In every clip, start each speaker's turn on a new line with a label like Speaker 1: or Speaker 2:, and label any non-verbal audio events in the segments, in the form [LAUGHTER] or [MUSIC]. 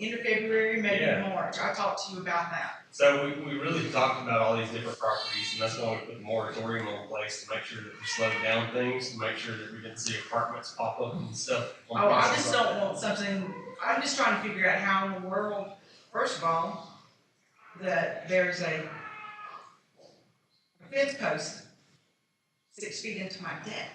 Speaker 1: end of February, maybe
Speaker 2: Yeah.
Speaker 1: March, I talked to you about that.
Speaker 2: So we, we really talked about all these different properties, and that's why we put the moratorium in place to make sure that we slowed down things, to make sure that we didn't see apartments pop up and stuff. on
Speaker 1: Oh, I
Speaker 2: places
Speaker 1: just
Speaker 2: like
Speaker 1: don't
Speaker 2: that.
Speaker 1: want something, I'm just trying to figure out how in the world, first of all, that there's a fence post six feet into my deck.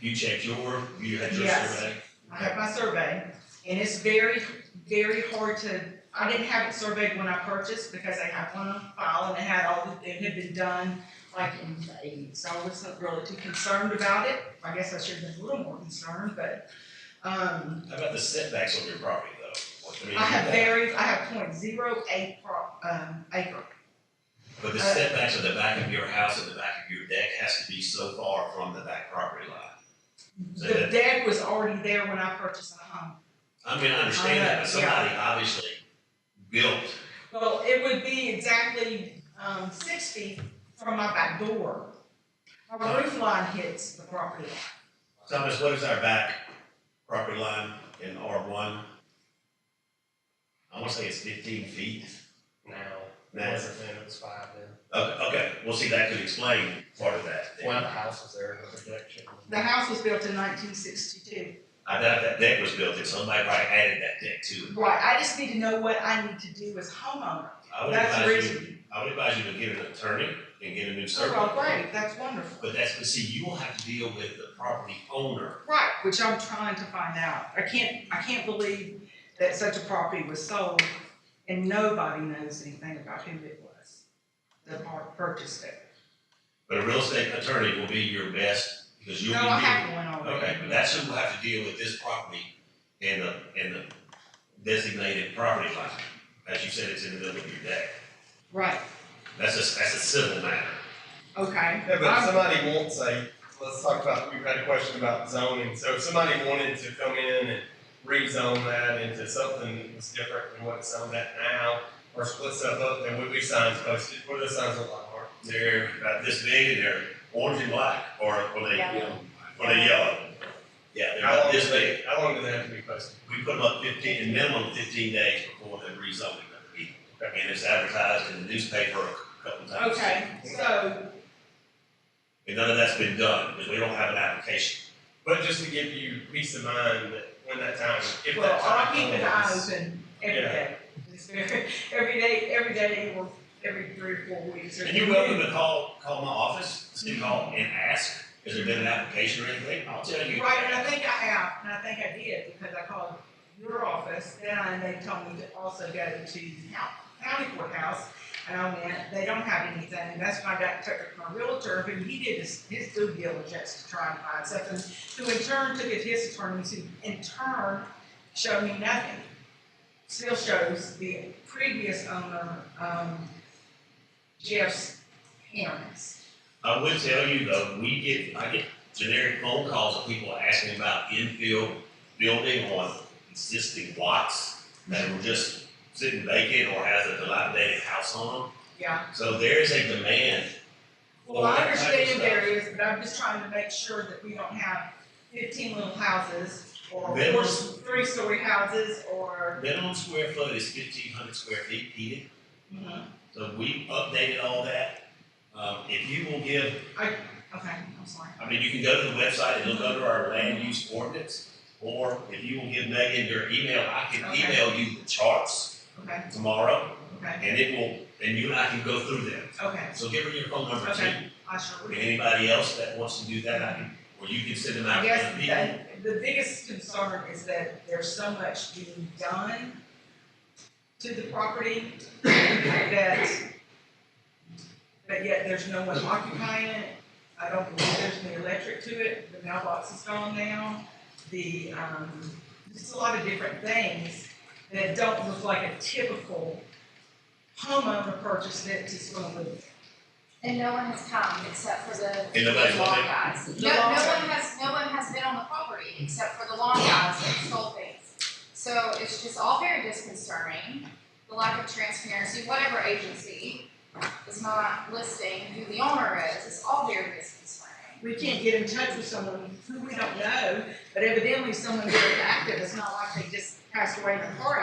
Speaker 2: You checked your, you had your
Speaker 1: Yes.
Speaker 2: survey.
Speaker 1: I have my survey, and it's very, very hard to, I didn't have it surveyed when I purchased because I had one on file and it had all, the- it had been done like in May, so I wasn't really too concerned about it. I guess I should have been a little more concerned, but, um,
Speaker 3: How about the setbacks on your property though? What do you mean
Speaker 1: I have
Speaker 3: by that?
Speaker 1: very, I have point zero eight pro, um, acre.
Speaker 3: But the
Speaker 1: uh,
Speaker 3: setbacks at the back of your house, at the back of your deck has to be so far from the back property line. So
Speaker 1: The
Speaker 3: that-
Speaker 1: deck was already there when I purchased the home.
Speaker 3: I mean, I understand that, but
Speaker 1: I know, Uh, yeah.
Speaker 3: somebody obviously built
Speaker 1: Well, it would be exactly, um, six feet from my back door. My roof line hits the property line.
Speaker 3: Thomas, what is our back property line in R one? I wanna say it's fifteen feet.
Speaker 2: No,
Speaker 3: No.
Speaker 2: it wasn't then, it was five then.
Speaker 3: Okay, okay, well, see, that could explain part of that.
Speaker 2: One of the houses there, the projection.
Speaker 1: The house was built in nineteen sixty-two.
Speaker 3: I doubt that deck was built, and somebody probably added that deck to it.
Speaker 1: Right, I just need to know what I need to do as homeowner.
Speaker 3: I would
Speaker 1: That's the
Speaker 3: advise you,
Speaker 1: reason.
Speaker 3: I would advise you to get an attorney and get a new survey.
Speaker 1: Oh, well, great, that's wonderful.
Speaker 3: But that's, but see, you will have to deal with the property owner.
Speaker 1: Right, which I'm trying to find out. I can't, I can't believe that such a property was sold and nobody knows anything about who it was that bought- purchased it.
Speaker 3: But a real estate attorney will be your best, because you'll
Speaker 1: No, I
Speaker 3: be. dealing-
Speaker 1: have one already.
Speaker 3: Okay, but that's who will have to deal with this property and the, and the designated property line. As you said, it's in the middle of your deck.
Speaker 1: Right,
Speaker 3: That's a, that's a civil matter.
Speaker 1: okay.
Speaker 2: Yeah, but if
Speaker 1: I'm-
Speaker 2: somebody wants a, let's talk about, we've had a question about zoning, so if somebody wanted to come in and rezone that into something that was different than what's zoned at now, or split stuff up, then would be signs posted, what do the signs look like, Mark?
Speaker 3: They're about this big and they're orange and black, or, or they,
Speaker 4: Yellow.
Speaker 3: or they yellow. Yeah, they're
Speaker 2: How
Speaker 3: about
Speaker 2: long do
Speaker 3: this big.
Speaker 2: they, how long do they have to be posted?
Speaker 3: We put them up fifteen, a minimum of fifteen days before the rezoning of the meeting. And it's advertised in the newspaper a couple times.
Speaker 1: Okay, so,
Speaker 3: And none of that's been done, because we don't have an application.
Speaker 2: But just to give you peace of mind that when that time, if
Speaker 1: well,
Speaker 2: that time
Speaker 1: I
Speaker 2: comes.
Speaker 1: keep an eye open every
Speaker 2: Yeah.
Speaker 1: day. [LAUGHS] It's very- Every day, every day, or every three or four weeks. or-
Speaker 3: And you're welcome to call, call my office, city hall, and ask, has there been an application or anything? I'll tell you.
Speaker 1: Right, and I think I have, and I think I did, because I called your office, then I, they told me to also go to the coun- county courthouse, and I went, they don't have anything, and that's when I got in touch with my realtor, but he did his, his due diligence to try and find something, who in turn took it to his attorneys, who in turn showed me nothing. Still shows the previous owner, um, Jeff's parents.
Speaker 3: I would tell you though, we get, I get generic phone calls of people asking about infill building on existing lots that were just sitting vacant or has a dilapidated house on
Speaker 1: Yeah,
Speaker 3: them. So there is a demand.
Speaker 1: Well, I
Speaker 3: Well, that type of
Speaker 1: understand there
Speaker 3: stuff.
Speaker 1: is, but I'm just trying to make sure that we don't have fifteen little houses or
Speaker 3: Then-
Speaker 1: four, three-story houses or.
Speaker 3: Minimum square foot is fifteen hundred square feet heated.
Speaker 1: mm-hmm,
Speaker 3: So we updated all that. Um, if you will give,
Speaker 1: Okay, I'm sorry.
Speaker 3: I mean, you can go to the website and look under our land use ordinance. Or if you will give Megan your email, I can
Speaker 1: Okay.
Speaker 3: email you the charts
Speaker 1: Okay,
Speaker 3: tomorrow.
Speaker 1: okay,
Speaker 3: And it will, and you and I can go through them.
Speaker 1: okay,
Speaker 3: So give her your phone number too.
Speaker 1: Okay. I sure
Speaker 3: And
Speaker 1: will.
Speaker 3: anybody else that wants to do that, I can, or you can send them out
Speaker 1: I
Speaker 3: to
Speaker 1: guess
Speaker 3: other people.
Speaker 1: that, the biggest concern is that there's so much being done to the property that, but yet there's no one occupying it. I don't believe there's any electric to it, the mailbox is gone now, the, um, just a lot of different things that don't look like a typical homeowner purchased it to sort of live.
Speaker 4: And no one has come except for the
Speaker 3: And nobody's
Speaker 4: lawn
Speaker 3: wanting-
Speaker 4: guys.
Speaker 1: The
Speaker 4: No, no
Speaker 1: lawn
Speaker 4: one has, no one has been on the property except for the lawn guys that stole things. So it's just all very disconcerting, the lack of transparency, whatever agency is not listing who the owner is, it's all very disconcerting.
Speaker 1: We can't get in touch with someone who we don't know, but evidently someone very active, it's not like they just passed away in a car